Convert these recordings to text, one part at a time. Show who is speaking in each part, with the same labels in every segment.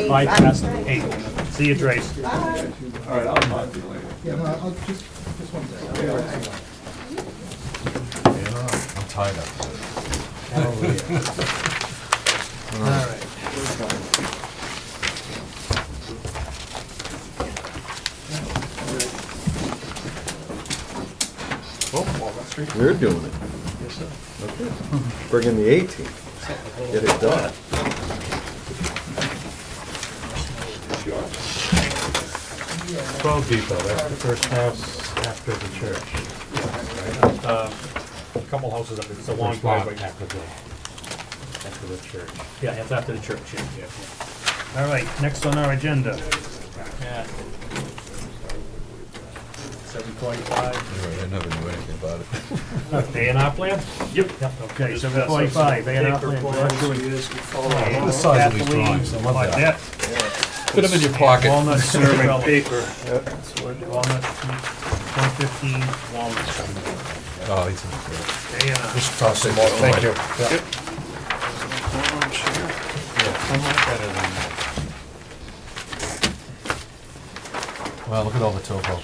Speaker 1: Five past eight. See you, Trace.
Speaker 2: All right, I'll talk to you later.
Speaker 3: Yeah, no, I'll just, just one second.
Speaker 4: I'm tied up.
Speaker 3: All right.
Speaker 4: You're doing it. Okay. Bring in the A team. Get it done.
Speaker 5: Twelve Depot, that's the first house after the church.
Speaker 1: Uh, A couple houses up, it's a long
Speaker 5: First lot
Speaker 1: driveway.
Speaker 5: After the, after the church.
Speaker 1: Yeah, it's after the church, yeah. yeah. All right, next on our agenda. Seven forty-five,
Speaker 4: I never knew anything about it.
Speaker 1: A and R plan? Yep. Okay, seven forty-five, A and R plan.
Speaker 5: The size of these drawings, I love that.
Speaker 4: Put them in your pocket.
Speaker 1: Walnut survey paper. Walnut, one fifteen Walnut,
Speaker 4: Oh, he's in
Speaker 1: A and R.
Speaker 5: Just toss them all, thank you.
Speaker 4: there. Wow, look at all the topos.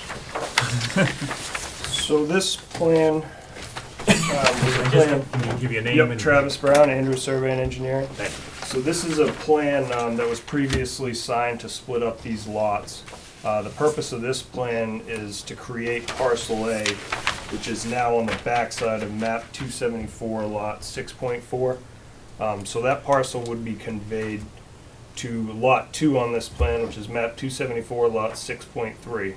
Speaker 6: So this plan, um, was a plan,
Speaker 1: Just, we'll give you a name
Speaker 6: yep,
Speaker 1: and.
Speaker 6: Travis Brown, Andrew Survey and Engineering.
Speaker 1: Thank you.
Speaker 6: So this is a plan um, that was previously signed to split up these lots. Uh, The purpose of this plan is to create parcel A, which is now on the backside of map 274, lot 6.4. Um, So that parcel would be conveyed to lot 2 on this plan, which is map 274, lot 6.3.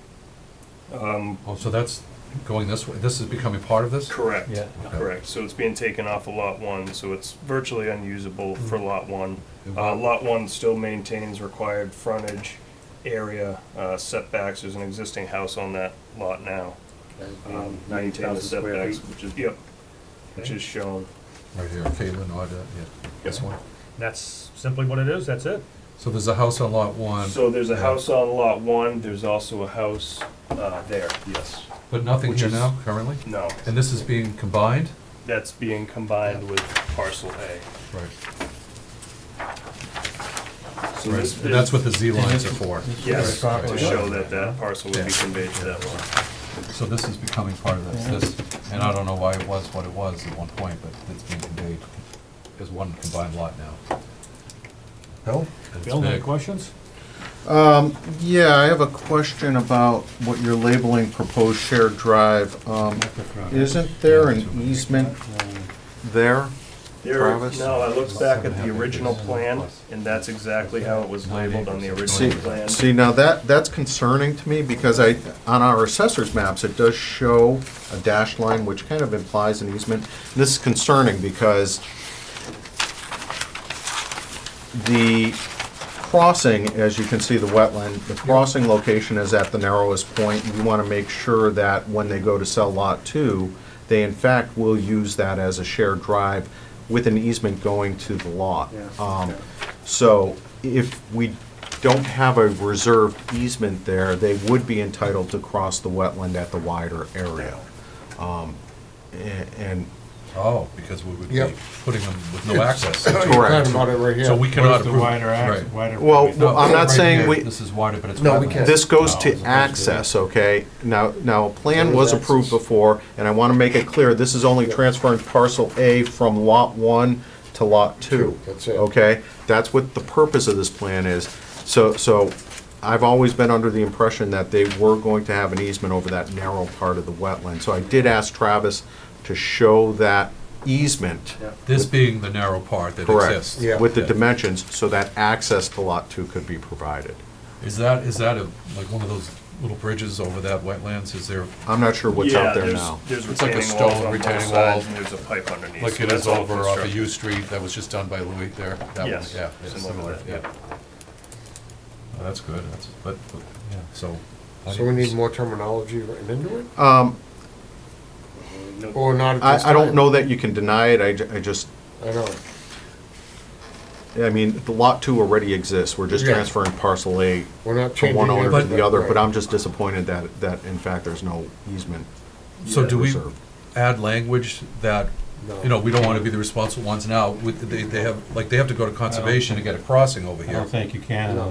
Speaker 4: Oh, so that's going this way. This is becoming part of this?
Speaker 6: Correct.
Speaker 5: Yeah.
Speaker 6: Correct, so it's being taken off of lot one, so it's virtually unusable
Speaker 4: Mm-hmm.
Speaker 6: for lot one. Uh, lot one still maintains required frontage area, uh, setbacks, there's an existing house on that lot now. Um, maintain the setbacks, which is, yep, which is shown.
Speaker 4: Right here, Caitlin, Audra, yeah. This one.
Speaker 1: That's simply what it is, that's it.
Speaker 4: So there's a house on lot one,
Speaker 6: So there's a house on lot one, there's also a house, uh, there, yes.
Speaker 4: but nothing here now currently?
Speaker 6: No,
Speaker 4: And this is being combined?
Speaker 6: that's being combined with parcel A.
Speaker 4: Right.
Speaker 6: So this-
Speaker 4: And that's what the Z lines are for.
Speaker 6: Yes, to
Speaker 4: Right.
Speaker 6: show that that parcel would be
Speaker 4: Yeah.
Speaker 6: conveyed to that lot.
Speaker 4: So this is becoming part of this, this, and I don't know why it was what it was at one point, but it's being conveyed as one combined lot now.
Speaker 5: Bill?
Speaker 4: And it's
Speaker 1: Bill, any
Speaker 4: big.
Speaker 1: questions?
Speaker 7: Yeah, I have a question about what you're labeling proposed shared drive. Um, Isn't there an easement there?
Speaker 6: There,
Speaker 7: Travis?
Speaker 6: no, I looked back at the original plan, and that's exactly how it was labeled on the
Speaker 7: See,
Speaker 6: original plan.
Speaker 7: see, now that, that's concerning to me because I, on our assessor's maps, it does show a dashed line, which kind of implies an easement. This is concerning because the crossing, as you can see, the wetland, the crossing location is at the narrowest point. We want to make sure that when they go to sell lot two, they in fact will use that as a shared drive with an easement going to the lot. Um, So if we don't have a reserved easement there, they would be entitled to cross the wetland at the wider area. Um, a- And,
Speaker 4: Oh, because we would be
Speaker 8: Yep.
Speaker 4: putting them with no access.
Speaker 7: correct.
Speaker 8: Oh, Talking about it right here.
Speaker 4: So we cannot
Speaker 5: Where's the
Speaker 4: approve.
Speaker 5: wider
Speaker 4: Right.
Speaker 5: access, wider?
Speaker 7: Well,
Speaker 4: No,
Speaker 7: I'm not
Speaker 4: right
Speaker 7: saying
Speaker 4: here.
Speaker 7: we,
Speaker 4: This is wider, but it's.
Speaker 8: No, we
Speaker 4: wetland.
Speaker 8: can't.
Speaker 7: This goes
Speaker 4: No,
Speaker 7: to
Speaker 4: it's
Speaker 7: access, okay? Now, now, a plan
Speaker 8: There
Speaker 7: was
Speaker 8: is
Speaker 7: approved
Speaker 8: access.
Speaker 7: before, and I want to make it clear, this is only transferring parcel A from lot one to lot two.
Speaker 8: Two, that's it.
Speaker 7: Okay? That's what the purpose of this plan is. So, so I've always been under the impression that they were going to have an easement over that narrow part of the wetland. So I did ask Travis to show that easement,
Speaker 4: This being the narrow part that
Speaker 7: Correct.
Speaker 4: exists.
Speaker 8: Yeah.
Speaker 7: with the
Speaker 4: Yeah.
Speaker 7: dimensions, so that access to lot two could be provided.
Speaker 4: Is that, is that a, like one of those little bridges over that wetlands? Is there,
Speaker 7: I'm not sure what's
Speaker 6: Yeah,
Speaker 7: out there
Speaker 6: there's-
Speaker 7: now.
Speaker 6: There's
Speaker 4: It's like a
Speaker 6: retaining walls
Speaker 4: stone
Speaker 6: on both
Speaker 4: retaining
Speaker 6: sides,
Speaker 4: wall.
Speaker 6: and there's a pipe underneath.
Speaker 4: like
Speaker 6: so
Speaker 4: it
Speaker 6: that's
Speaker 4: is
Speaker 6: all
Speaker 4: over off of
Speaker 6: constructed.
Speaker 4: U Street that was just done by Louis there? That one,
Speaker 6: Yes,
Speaker 4: Yeah, yeah,
Speaker 6: similar to
Speaker 4: similar,
Speaker 6: that,
Speaker 4: yeah. Oh, That's good, that's, but, but, yeah, so. I
Speaker 8: So we need
Speaker 4: didn't-
Speaker 8: more terminology written into it,
Speaker 7: Um,
Speaker 8: or not at this
Speaker 7: I, I don't
Speaker 8: time?
Speaker 7: know that you can deny it, I, ju- I just,
Speaker 8: I know,
Speaker 7: I mean, the lot two already exists, we're just
Speaker 8: Yeah.
Speaker 7: transferring parcel A
Speaker 8: we're not
Speaker 7: from
Speaker 8: changing.
Speaker 7: one owner to
Speaker 8: anything,
Speaker 7: the other,
Speaker 8: right.
Speaker 7: but I'm just disappointed that, that in fact there's no easement.
Speaker 4: So do we
Speaker 7: reserved.
Speaker 4: add language that,
Speaker 8: No.
Speaker 4: you know, we don't wanna be the responsible ones now, with, they, they have, like, they have to go to conservation to get a crossing over
Speaker 5: I
Speaker 4: here.
Speaker 5: don't think you can. in
Speaker 8: No.